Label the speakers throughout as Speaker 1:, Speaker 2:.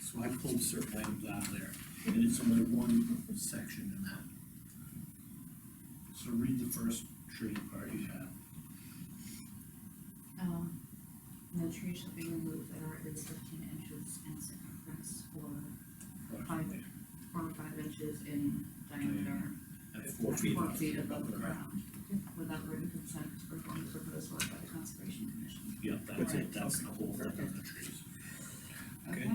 Speaker 1: So I pulled certain items out of there, and it's only one section in that. So read the first tree part you have.
Speaker 2: Um, no tree shall be removed that are at least fifteen inches in circumference or, Five. or five inches in diameter.
Speaker 1: At four
Speaker 2: at
Speaker 1: feet.
Speaker 2: Four feet above the ground, without written consent to perform the proposed work by the conservation commission.
Speaker 1: Yeah, that's it, that's the whole thing of the trees. Okay.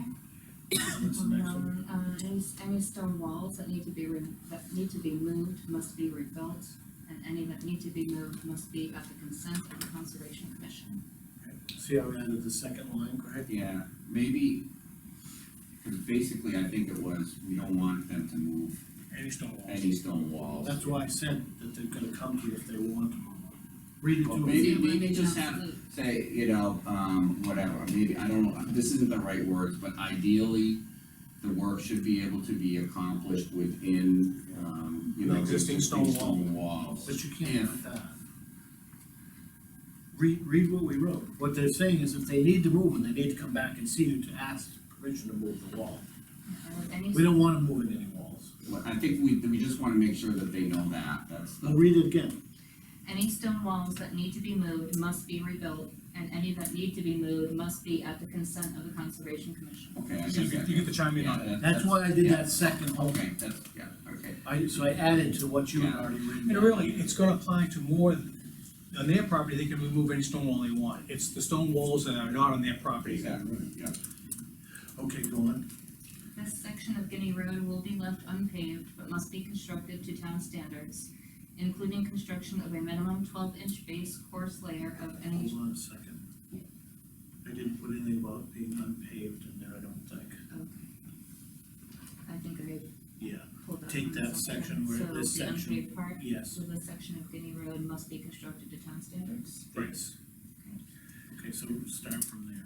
Speaker 1: What's the next one?
Speaker 2: Um, uh, any, any stone walls that need to be, re- that need to be moved must be rebuilt, and any that need to be moved must be at the consent of the conservation commission.
Speaker 1: See, how I added the second line, Greg?
Speaker 3: Yeah, maybe, because basically I think it was, we don't want them to move
Speaker 4: Any stone walls.
Speaker 3: any stone walls.
Speaker 1: That's why I said that they're gonna come to you if they want to. Read it to
Speaker 3: Well,
Speaker 1: them.
Speaker 3: maybe-
Speaker 2: It would be
Speaker 3: just have-
Speaker 2: absolute.
Speaker 3: Say, you know, um, whatever, maybe, I don't know, this isn't the right words, but ideally, the work should be able to be accomplished within, um, you
Speaker 1: The
Speaker 3: know.
Speaker 1: existing stone
Speaker 3: walls.
Speaker 1: But you can't put that. Read, read what we wrote. What they're saying is if they need to move and they need to come back and see you to ask permission to move the wall.
Speaker 2: And any
Speaker 1: We don't want them moving any walls.
Speaker 3: Well, I think we, we just wanna make sure that they know that, that's
Speaker 1: I'll
Speaker 3: the,
Speaker 1: read it again.
Speaker 2: Any stone walls that need to be moved must be rebuilt, and any that need to be moved must be at the consent of the conservation commission.
Speaker 3: okay, I guess
Speaker 4: You get,
Speaker 3: that-
Speaker 4: you get to chime in
Speaker 3: yeah,
Speaker 4: on it.
Speaker 3: that-
Speaker 1: uh, That's why I did
Speaker 3: yeah.
Speaker 1: that second whole.
Speaker 3: Okay, that's, yeah, okay,
Speaker 1: I, so I added to what you had already
Speaker 4: I mean,
Speaker 1: written.
Speaker 4: really, it's gonna apply to more, than- on their property, they can remove any stone wall they want. It's the stone walls that are not on their property.
Speaker 3: exactly, yeah.
Speaker 1: Okay, go on.
Speaker 2: This section of Guinea Road will be left unpaved, but must be constructed to town standards, including construction of a minimum twelve-inch base course layer of
Speaker 1: Hold
Speaker 2: any,
Speaker 1: on a second. I didn't put anything about being unpaved in there, I don't think.
Speaker 2: I think I
Speaker 1: Yeah,
Speaker 2: pulled that.
Speaker 1: Take
Speaker 2: from
Speaker 1: that
Speaker 2: somewhere.
Speaker 1: section where
Speaker 2: So
Speaker 1: this
Speaker 2: the
Speaker 1: section-
Speaker 2: unpaved part,
Speaker 1: yes,
Speaker 2: so this section of Guinea Road must be constructed to town standards.
Speaker 1: yes. Okay, so we'll start from there.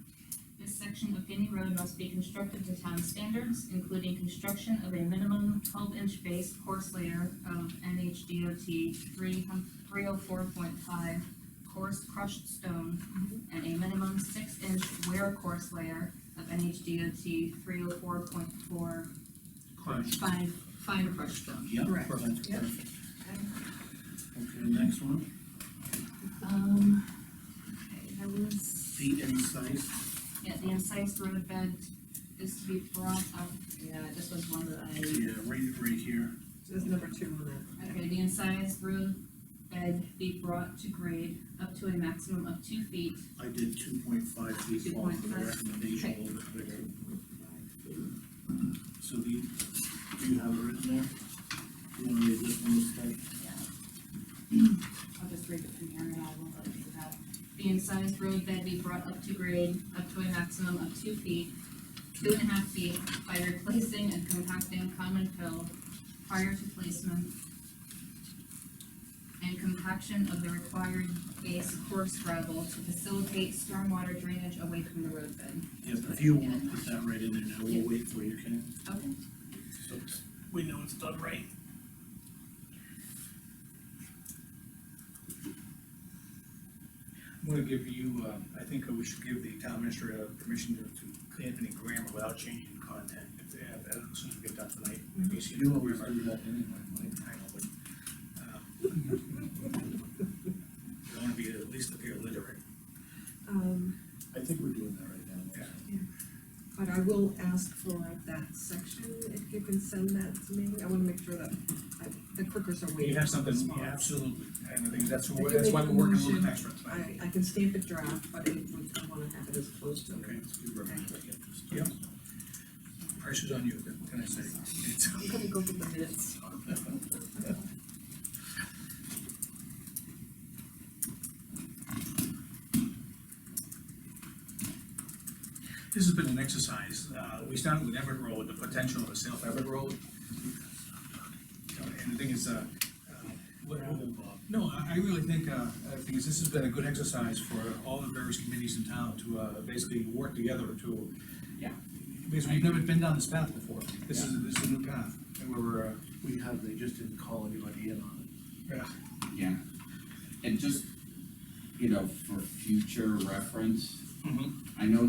Speaker 2: This section of Guinea Road must be constructed to town standards, including construction of a minimum twelve-inch base course layer of NHDOT three three oh four point five coarse crushed stone and a minimum six-inch wear course layer of NHDOT three oh four point four
Speaker 1: Crush.
Speaker 2: fine, fine crushed stone.
Speaker 1: Yep,
Speaker 2: Correct.
Speaker 1: perfect,
Speaker 2: Yep.
Speaker 1: perfect. Okay, next one,
Speaker 2: Um, okay, that was.
Speaker 1: the incised.
Speaker 2: Yeah, the incised road bed is to be brought up, yeah, this was one that I,
Speaker 1: Yeah, right, uh, right here.
Speaker 5: There's number two on
Speaker 2: okay, the incised road bed be brought to grade up to a maximum of two feet.
Speaker 1: I did two point five feet long for the
Speaker 2: 2.5.
Speaker 1: recommendation, a little bit bigger. So the, do you have it written there? Do you want to read this one instead?
Speaker 2: I'll just read it from here and I won't let it go back. The incised road bed be brought up to grade up to a maximum of two feet, two and a half feet by replacing and compacting common fill prior to placement and compaction of the required base coarse gravel to facilitate stormwater drainage away from the roadbed.
Speaker 1: Yeah, but if you want to put that right in there now,
Speaker 2: Yeah.
Speaker 1: we'll wait for you, okay?
Speaker 2: Okay.
Speaker 1: So we know it's done right.
Speaker 4: I'm gonna give you, uh, I think we should give the town administrator permission to, to clean up any grammar without changing content, if, they have- as soon as we get done tonight. in case
Speaker 1: You know, we
Speaker 4: I know,
Speaker 1: do that anyway, Mike.
Speaker 4: but, um, I wanna be at least appear literate.
Speaker 5: that. Um,
Speaker 1: I think we're doing that right now.
Speaker 4: Yeah.
Speaker 5: but I will ask for that section, if you can send that to me, I wanna make sure that I- the clickers are waiting.
Speaker 4: You have something,
Speaker 5: for
Speaker 4: yeah,
Speaker 5: response.
Speaker 4: absolutely, and I think that's,
Speaker 5: I can
Speaker 4: wh- that's why
Speaker 5: make
Speaker 4: we're
Speaker 5: a
Speaker 4: working a little
Speaker 5: motion.
Speaker 4: bit extra tonight.
Speaker 5: I, I can stamp it draft, but it would, I wanna have it as close to.
Speaker 4: Okay.
Speaker 1: Let's give her a minute, I get this
Speaker 4: Yeah.
Speaker 1: done.
Speaker 4: Pressure's on you, what can I say? It's-
Speaker 5: I'm gonna go for the minutes.
Speaker 4: This has been an exercise, uh, we started with Everett Road, the potential of a South Everett Road. You know, And the thing is, uh, uh, what-
Speaker 1: Rather than Bob.
Speaker 4: no, I, I really think, uh, I think this has been a good exercise for all the various committees in town to, uh, basically work together to.
Speaker 3: Yeah.
Speaker 4: Because we've never been down this path before, this is, this is a new path, and we're, uh,
Speaker 1: We have, they just didn't call anybody in on it.
Speaker 4: yeah,
Speaker 3: Yeah, and just, you know, for future reference,
Speaker 4: Mhm.
Speaker 3: I know